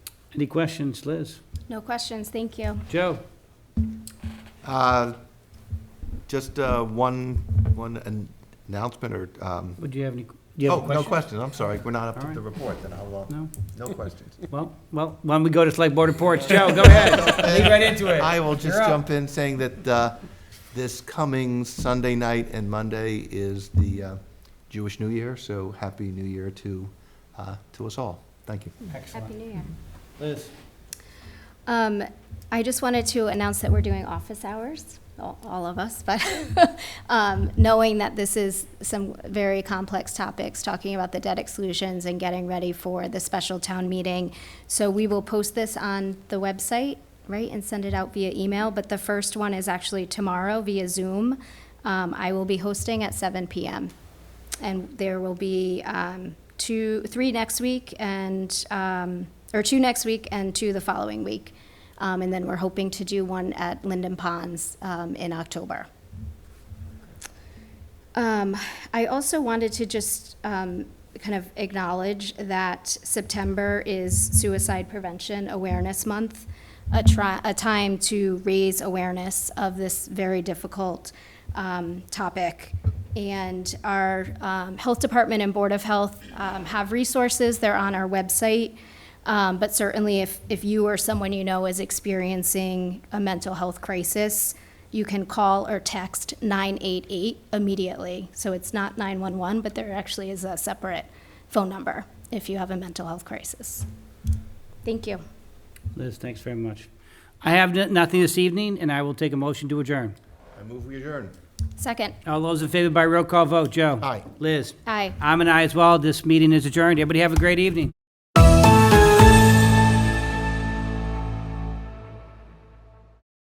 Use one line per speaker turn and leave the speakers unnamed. Any questions, Liz?
No questions, thank you.
Joe?
Uh, Just uh, one, one an- announcement or, um,
Would you have any, do you have
oh,
a
no
question?
questions, I'm sorry, we're not up to
All
the report, then I'll, uh,
No?
no questions.
Well, well, why don't we go to select board reports? Joe, go ahead. Lead right into it.
I will just
You're up.
jump in saying that uh, this coming Sunday night and Monday is the uh, Jewish New Year, so Happy New Year to, uh, to us all. Thank you.
Happy
Excellent.
New Year.
Liz?
Um, I just wanted to announce that we're doing office hours, all, all of us, but, um, knowing that this is some very complex topics, talking about the debt exclusions and getting ready for the special town meeting. So we will post this on the website, right, and send it out via email, but the first one is actually tomorrow via Zoom. Um, I will be hosting at seven PM. And there will be um, two, three next week and, um, or two next week and two the following week. Um, And then we're hoping to do one at Linden Ponds um, in October. Um, I also wanted to just um, kind of acknowledge that September is Suicide Prevention Awareness Month, a, try, a time to raise awareness of this very difficult um, topic. And our um, Health Department and Board of Health um, have resources, they're on our website. Um, but certainly, if, if you or someone you know is experiencing a mental health crisis, you can call or text 988 immediately. So it's not 911, but there actually is a separate phone number if you have a mental health crisis. Thank you.
Liz, thanks very much. I have n- nothing this evening, and I will take a motion to adjourn.
I move we adjourn.
Second,
All those in favor by roll call vote, Joe?
Aye.
Liz?
aye.
I'm an aye as well. This meeting is adjourned. Everybody have a great evening.